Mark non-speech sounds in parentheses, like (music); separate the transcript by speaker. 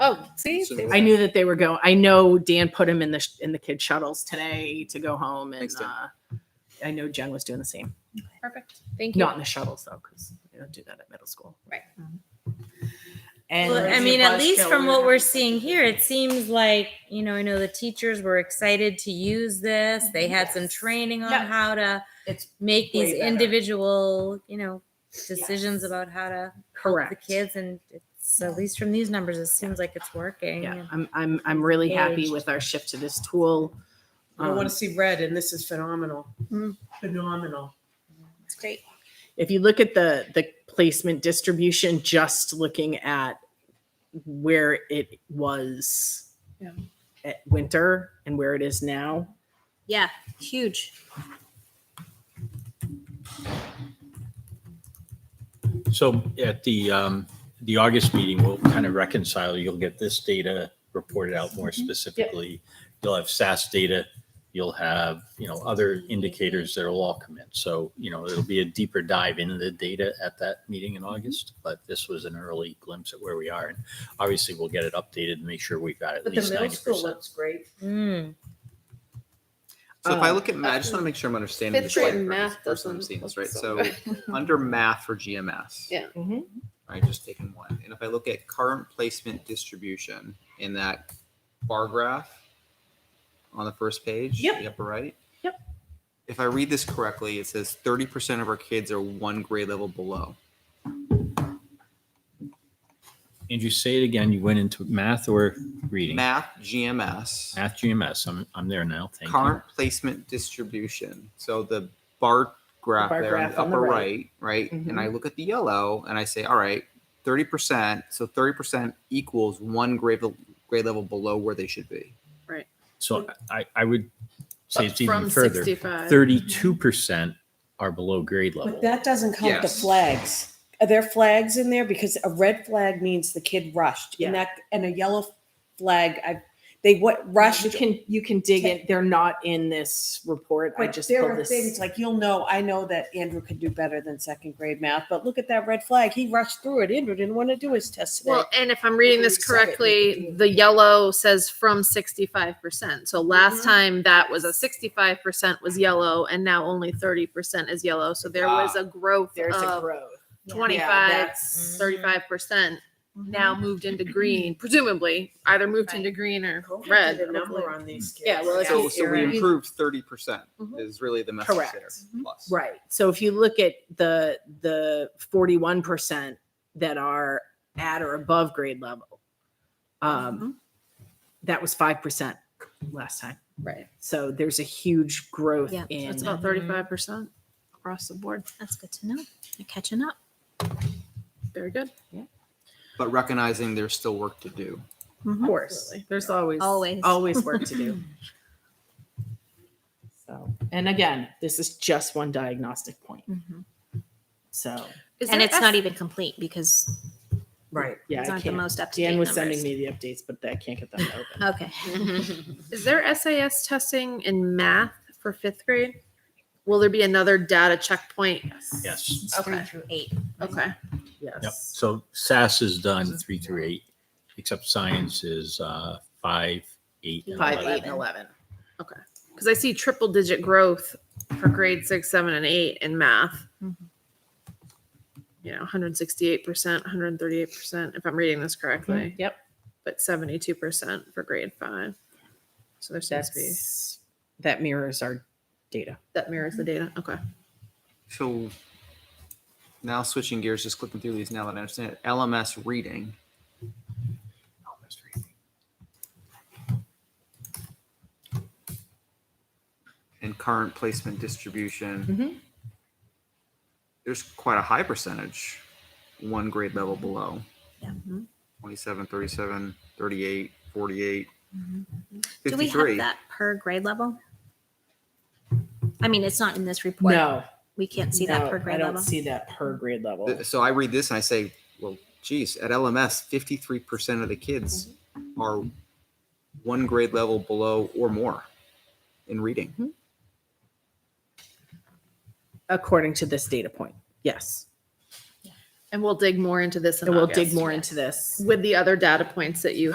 Speaker 1: Oh, see,
Speaker 2: So-
Speaker 1: They were-
Speaker 3: I knew that they were going. I know Dan put him in the sh- in the kid shuttles today to go home, and
Speaker 2: Thanks, Dan.
Speaker 3: uh, I know Jen was doing the same.
Speaker 1: perfect. Thank you.
Speaker 3: Not in the shuttles though, because they don't do that at middle school. Um,
Speaker 1: Right.
Speaker 3: And
Speaker 4: Well, I mean, at least from what we're seeing here, it seems like, you know, I know the teachers were excited to use this. They had some
Speaker 3: Yes.
Speaker 4: training on
Speaker 3: Yeah.
Speaker 4: how to
Speaker 3: It's
Speaker 4: make
Speaker 3: way
Speaker 4: these
Speaker 3: better.
Speaker 4: individual, you know, decisions about how to help the
Speaker 3: correct.
Speaker 4: kids. And it's at least from these numbers, it seems like it's working.
Speaker 3: Yeah, I'm I'm I'm really happy
Speaker 4: Engaged.
Speaker 3: with our shift to this tool.
Speaker 5: I
Speaker 3: Um,
Speaker 5: want to see red, and this is phenomenal.
Speaker 1: Mm.
Speaker 5: Phenomenal.
Speaker 1: It's great.
Speaker 3: if you look at the the placement distribution just looking at where it was
Speaker 1: Yeah.
Speaker 3: at winter and where it is now
Speaker 4: Yeah. Huge.
Speaker 2: So at the, um, the August meeting, we'll kind of reconcile. You'll get this data reported out more
Speaker 5: Mm-hmm.
Speaker 2: specifically. You'll have SAS data. You'll have, you know, other indicators that'll all come in. So, you know, it'll be a deeper dive into the data at that meeting
Speaker 5: Mm-hmm.
Speaker 2: in August. But this was an early glimpse at where we are. And obviously, we'll get it updated and make sure we've got at
Speaker 5: But the
Speaker 2: least
Speaker 5: middle
Speaker 2: ninety
Speaker 5: school
Speaker 2: percent.
Speaker 5: looks great.
Speaker 4: Mm.
Speaker 6: So if I
Speaker 3: Um,
Speaker 6: look at math, I just want to make sure I'm understanding
Speaker 1: Uh, Fifth
Speaker 6: this right.
Speaker 1: grade
Speaker 6: Math
Speaker 1: math
Speaker 6: first time I'm
Speaker 1: doesn't
Speaker 6: seeing this,
Speaker 1: look
Speaker 6: right? So
Speaker 1: (laughs) good.
Speaker 6: under math for GMS.
Speaker 1: Yeah.
Speaker 3: Mhm.
Speaker 6: I just taken one. And if I look at current placement distribution in that bar graph on the first page,
Speaker 3: Yep.
Speaker 6: the upper right.
Speaker 3: Yep.
Speaker 6: If I read this correctly, it says 30% of our kids are one grade level below.
Speaker 2: And you say it again, you went into math or reading?
Speaker 6: Math GMS.
Speaker 2: Math GMS. I'm, I'm there now. Thank you.
Speaker 6: current placement distribution. So the bar graph
Speaker 3: bar
Speaker 6: there
Speaker 3: graph
Speaker 6: on
Speaker 3: on
Speaker 6: the
Speaker 3: the
Speaker 6: upper right, right?
Speaker 3: Mhm.
Speaker 6: And I look at the yellow and I say, all right, 30%. So 30% equals one grade, le- grade level below where they should be.
Speaker 2: So I, I would say it's
Speaker 1: From
Speaker 2: even further.
Speaker 1: 65.
Speaker 2: Thirty-two percent are below grade level.
Speaker 7: But that doesn't count the
Speaker 6: Yes.
Speaker 7: flags. Are there flags in there? Because a red flag means the kid rushed, and
Speaker 3: Yeah.
Speaker 7: that and a yellow flag, I they what rushed.
Speaker 3: you can you can dig in they're not in this report i
Speaker 7: But
Speaker 3: just
Speaker 7: there
Speaker 3: pulled
Speaker 7: are
Speaker 3: this
Speaker 7: things like you'll know. I know that Andrew could do better than second grade math, but look at that red flag. He rushed through it. Andrew didn't want to do his test today.
Speaker 1: Well, and if I'm reading this correctly, the yellow says from 65%. So
Speaker 5: Mm-hmm.
Speaker 1: last time that was a 65% was yellow and now only 30% is yellow. So there was
Speaker 5: Ah,
Speaker 1: a growth
Speaker 3: there's a
Speaker 1: of
Speaker 3: growth
Speaker 1: 25,
Speaker 3: that's-
Speaker 1: 35%
Speaker 5: Mm-hmm.
Speaker 1: now moved into green, presumably either moved
Speaker 3: Right.
Speaker 1: into green or
Speaker 5: COVID
Speaker 1: red.
Speaker 5: did a
Speaker 1: hopefully.
Speaker 5: number on these kids.
Speaker 1: Yeah, well, it's
Speaker 6: So,
Speaker 1: Yeah.
Speaker 6: so we
Speaker 1: You're right.
Speaker 6: improved 30%
Speaker 1: Mhm.
Speaker 6: is really the message there.
Speaker 3: Mm-hmm. Correct. Mm-hmm.
Speaker 6: Plus.
Speaker 3: right so if you look at the the 41% that are at or above grade level um that was 5% last time
Speaker 1: Right.
Speaker 3: so there's a huge growth
Speaker 4: Yeah,
Speaker 3: in
Speaker 1: That's about 35% across the board.
Speaker 4: That's good to know. You're catching up.
Speaker 1: Very good.
Speaker 6: But recognizing there's still work to do.
Speaker 3: Of course. There's always
Speaker 4: Always.
Speaker 3: always work to
Speaker 4: (laughs)
Speaker 3: do. so, and again, this is just one diagnostic point.
Speaker 4: Mhm.
Speaker 3: So,
Speaker 1: Is
Speaker 4: And
Speaker 1: there
Speaker 4: it's
Speaker 1: F-
Speaker 4: not even complete because
Speaker 3: right. Yeah,
Speaker 4: it's
Speaker 3: I
Speaker 4: not the
Speaker 3: can't.
Speaker 4: most up to date.
Speaker 3: Dan was sending me the updates, but I can't get them to open.
Speaker 4: Okay.
Speaker 1: Is there SAS testing in math for fifth grade? Will there be another data checkpoint?
Speaker 2: Yes.
Speaker 4: It's Three
Speaker 1: Okay.
Speaker 4: through eight.
Speaker 1: Okay.
Speaker 3: (laughs)
Speaker 2: Yep.
Speaker 3: Yes.
Speaker 2: So SAS is done three through eight, except science is uh, five, eight, and
Speaker 3: Five,
Speaker 2: eleven.
Speaker 3: eight, and 11.
Speaker 1: Because I see triple digit growth for grade six, seven, and eight in math.
Speaker 4: Mhm.
Speaker 1: You know, 168%, 138%, if I'm reading this correctly,
Speaker 3: Yep.
Speaker 1: but 72% for grade five. So there seems to be,
Speaker 3: That's, that mirrors our data.
Speaker 1: that mirrors the data. Okay.
Speaker 6: So now switching gears, just clicking through these now that I understand it. LMS reading. LMS reading. And current placement distribution.
Speaker 4: Mm-hmm.
Speaker 3: Mhm.
Speaker 6: There's quite a high percentage, one grade level below.
Speaker 4: Yeah. mm-hmm.
Speaker 6: 27, 37, 38, 48,
Speaker 4: Mm-hmm, Do we
Speaker 6: 53.
Speaker 4: have that per grade level? I mean, it's not in this report.
Speaker 3: No,
Speaker 4: We can't see
Speaker 3: no,
Speaker 4: that per grade
Speaker 3: I don't
Speaker 4: level.
Speaker 3: see that per grade level.
Speaker 6: Th- So I read this and I say, well, geez, at LMS, fifty-three percent of the kids are one grade level below or more in reading.
Speaker 3: According to this data point. Yes.
Speaker 1: And we'll dig more into this. in
Speaker 3: And we'll dig
Speaker 1: August.
Speaker 3: more into this.
Speaker 1: With the other data points that you